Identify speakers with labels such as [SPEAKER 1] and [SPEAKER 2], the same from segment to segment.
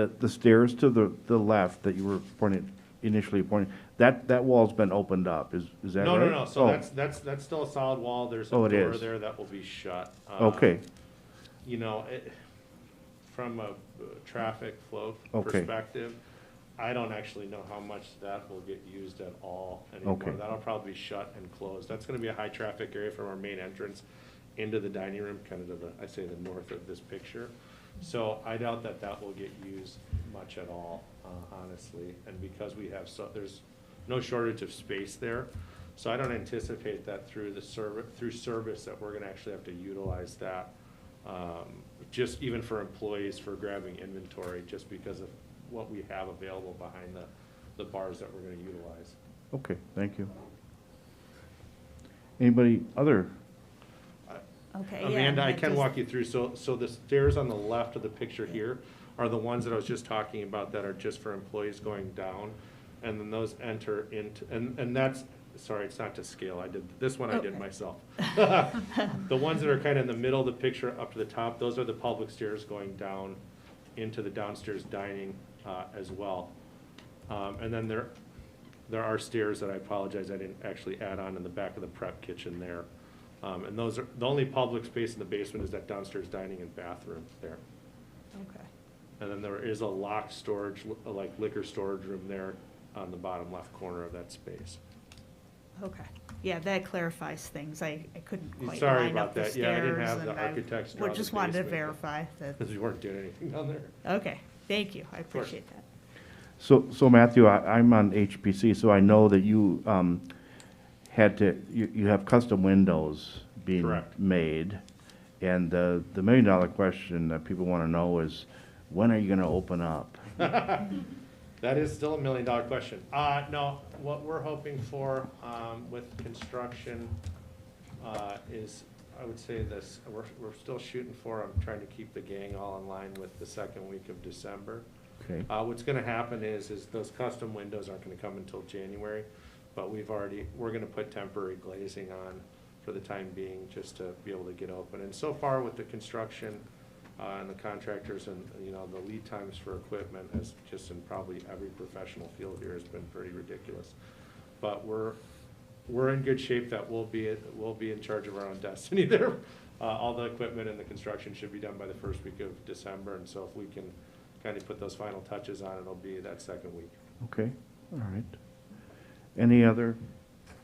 [SPEAKER 1] The, the stairs to the, the left that you were pointing, initially pointing, that, that wall's been opened up, is, is that right?
[SPEAKER 2] No, no, no, so
[SPEAKER 1] Oh,
[SPEAKER 2] that's, that's, that's still a solid wall, there's a
[SPEAKER 1] Oh, it
[SPEAKER 2] door
[SPEAKER 1] is.
[SPEAKER 2] there that will be shut. Uh,
[SPEAKER 1] Oh, Okay,
[SPEAKER 2] You know, it, from a uh, traffic flow
[SPEAKER 1] Okay.
[SPEAKER 2] perspective, I don't actually know how much that will get used at all anymore.
[SPEAKER 1] Okay.
[SPEAKER 2] That'll probably be shut and closed, that's gonna be a high-traffic area from our main entrance into the dining room, kind of to the, I say the north of this picture. So I doubt that that will get used much at all, uh, honestly, and because we have so, there's no shortage of space there. So I don't anticipate that through the service, through service, that we're gonna actually have to utilize that. um, Just even for employees for grabbing inventory, just because of what we have available behind the, the bars that we're gonna utilize.
[SPEAKER 1] okay, thank you. Anybody other?
[SPEAKER 3] Okay, yeah.
[SPEAKER 2] Amanda, I
[SPEAKER 3] that
[SPEAKER 2] can
[SPEAKER 3] does-
[SPEAKER 2] walk you through, so, so the stairs on the left of the picture here are the ones that I was just talking about that are just for employees going down, and then those enter into, and, and that's, sorry, it's not to scale, I did, this one I did
[SPEAKER 3] Okay.
[SPEAKER 2] myself. The ones that are kind of in the middle of the picture up to the top, those are the public stairs going down into the downstairs dining, uh, as well. Um, and then there, there are stairs that I apologize, I didn't actually add on in the back of the prep kitchen there. Um, and those are, the only public space in the basement is that downstairs dining and bathroom there.
[SPEAKER 3] Okay,
[SPEAKER 2] And then there is a locked storage, li- like liquor storage room there on the bottom left corner of that space.
[SPEAKER 3] okay. Yeah, that clarifies things. I, I couldn't quite
[SPEAKER 2] Sorry
[SPEAKER 3] line
[SPEAKER 2] about
[SPEAKER 3] up the
[SPEAKER 2] that. Yeah, I didn't
[SPEAKER 3] stairs
[SPEAKER 2] have the
[SPEAKER 3] and I
[SPEAKER 2] architects
[SPEAKER 3] would-
[SPEAKER 2] draw the
[SPEAKER 3] Just wanted to
[SPEAKER 2] basement.
[SPEAKER 3] verify that,
[SPEAKER 2] Because we weren't doing anything down there.
[SPEAKER 3] okay, thank you. I
[SPEAKER 2] course.
[SPEAKER 3] appreciate that.
[SPEAKER 1] So, so Matthew, I, I'm on HPC, so I know that you, um, had to, you, you have custom windows being
[SPEAKER 2] Correct.
[SPEAKER 1] made. And the, the million dollar question that people want to know is, when are you going to open up?
[SPEAKER 2] That is still a million dollar question. Uh, no, what we're hoping for, um, with construction, uh, is, I would say this, we're, we're still shooting for, I'm trying to keep the gang all in line with the second week of December.
[SPEAKER 1] Okay,
[SPEAKER 2] Uh, what's gonna happen is, is those custom windows aren't gonna come until January, but we've already, we're gonna put temporary glazing on for the time being, just to be able to get open. And so far with the construction, uh, and the contractors and, you know, the lead times for equipment has just in probably every professional field here has been pretty ridiculous. But we're, we're in good shape that we'll be, we'll be in charge of our own destiny there. Uh, all the equipment and the construction should be done by the first week of December, and so if we can kind of put those final touches on, it'll be that second week.
[SPEAKER 1] okay, all right. Any other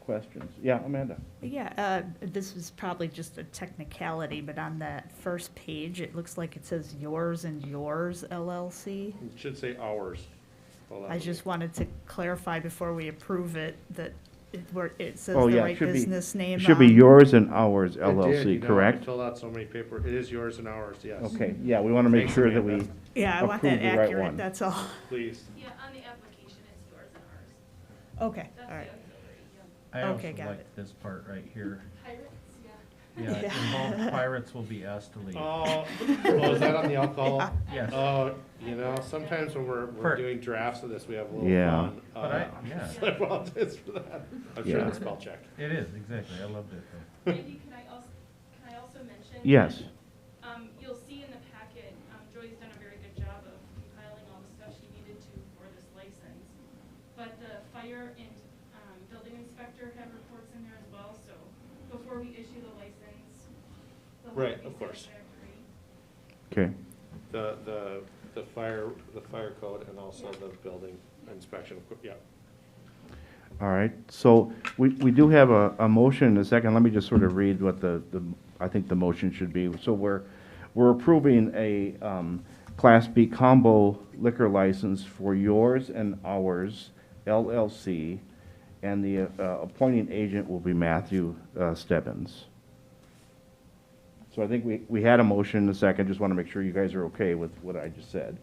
[SPEAKER 1] questions? Yeah, Amanda?
[SPEAKER 3] Yeah, uh, this is probably just a technicality, but on that first page, it looks like it says yours and yours LLC.
[SPEAKER 2] It should say hours.
[SPEAKER 3] I just wanted to clarify before we approve it that it, where it says
[SPEAKER 1] Oh,
[SPEAKER 3] the
[SPEAKER 1] yeah, it
[SPEAKER 3] right
[SPEAKER 1] should be-
[SPEAKER 3] business name.
[SPEAKER 1] It should be
[SPEAKER 3] on-
[SPEAKER 1] yours and ours
[SPEAKER 2] I did, you
[SPEAKER 1] LLC,
[SPEAKER 2] know, I
[SPEAKER 1] correct?
[SPEAKER 2] Filled out so many paper, it is yours and ours, yes.
[SPEAKER 1] Okay, yeah, we want to make
[SPEAKER 2] Thanks,
[SPEAKER 1] sure that
[SPEAKER 2] Amanda.
[SPEAKER 1] we,
[SPEAKER 3] Yeah, I want that
[SPEAKER 1] approve the right one.
[SPEAKER 3] accurate, that's all.
[SPEAKER 2] Please.
[SPEAKER 4] Yeah, on the application, it's yours and ours.
[SPEAKER 3] Okay,
[SPEAKER 4] That's
[SPEAKER 3] all
[SPEAKER 4] the
[SPEAKER 3] right.
[SPEAKER 4] auxiliary, yeah.
[SPEAKER 5] I
[SPEAKER 3] Okay,
[SPEAKER 5] also
[SPEAKER 3] got
[SPEAKER 5] like
[SPEAKER 3] it.
[SPEAKER 5] this part right here.
[SPEAKER 4] Pirates, yeah.
[SPEAKER 5] Yeah,
[SPEAKER 3] Yeah.
[SPEAKER 5] involved pirates will be asked to leave.
[SPEAKER 2] Oh, oh, is that on the alcohol?
[SPEAKER 5] Yes,
[SPEAKER 2] Oh, you know, sometimes when we're, we're
[SPEAKER 5] Per-
[SPEAKER 2] doing drafts of this, we have a little
[SPEAKER 1] Yeah.
[SPEAKER 2] fun.
[SPEAKER 5] but
[SPEAKER 2] uh,
[SPEAKER 5] I, yeah,
[SPEAKER 2] I apologize for that. I'm sure
[SPEAKER 1] Yeah.
[SPEAKER 2] the spell check.
[SPEAKER 5] it is, exactly. I loved it though.
[SPEAKER 4] Randy, can I also, can I also mention?
[SPEAKER 1] yes,
[SPEAKER 4] Um, you'll see in the packet, um, Joy's done a very good job of compiling all the stuff she needed to for this license. But the fire and, um, building inspector have reports in there as well, so before we issue the license, the whole
[SPEAKER 2] Right,
[SPEAKER 4] be
[SPEAKER 2] of course.
[SPEAKER 1] okay,
[SPEAKER 4] satisfactory.
[SPEAKER 2] The, the, the fire, the fire code and also the building inspection, of cour- yeah.
[SPEAKER 1] all right. So we, we do have a, a motion in a second. Let me just sort of read what the, the, I think the motion should be. So we're, we're approving a, um, Class B combo liquor license for yours and ours LLC. And the, uh, appointing agent will be Matthew, uh, Stebbins. So I think we, we had a motion in a second. Just want to make sure you guys are okay with what I just said.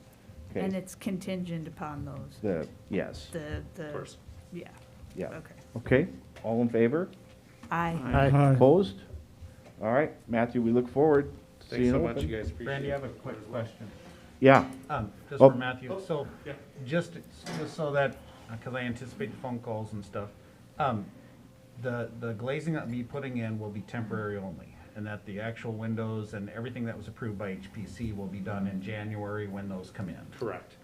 [SPEAKER 3] And
[SPEAKER 1] Okay,
[SPEAKER 3] it's contingent upon those,
[SPEAKER 1] the, yes,
[SPEAKER 3] the, the.
[SPEAKER 2] Of course.
[SPEAKER 3] Yeah,
[SPEAKER 1] yeah.
[SPEAKER 3] okay.
[SPEAKER 1] Okay, all in favor?
[SPEAKER 3] I,
[SPEAKER 1] Opposed? All right, Matthew, we look forward to
[SPEAKER 2] Thanks
[SPEAKER 1] seeing
[SPEAKER 2] so
[SPEAKER 1] you
[SPEAKER 2] much,
[SPEAKER 1] open.
[SPEAKER 2] you guys, appreciate it.
[SPEAKER 5] Randy, I have a quick question.
[SPEAKER 1] Yeah,
[SPEAKER 5] Um, just
[SPEAKER 1] Oh.
[SPEAKER 5] for Matthew, so,
[SPEAKER 2] Yeah.
[SPEAKER 5] just, just so that, because I anticipate the phone calls and stuff. Um, the, the glazing that me putting in will be temporary only. and that the actual windows and everything that was approved by HPC will be done in January when those come in.
[SPEAKER 2] Correct.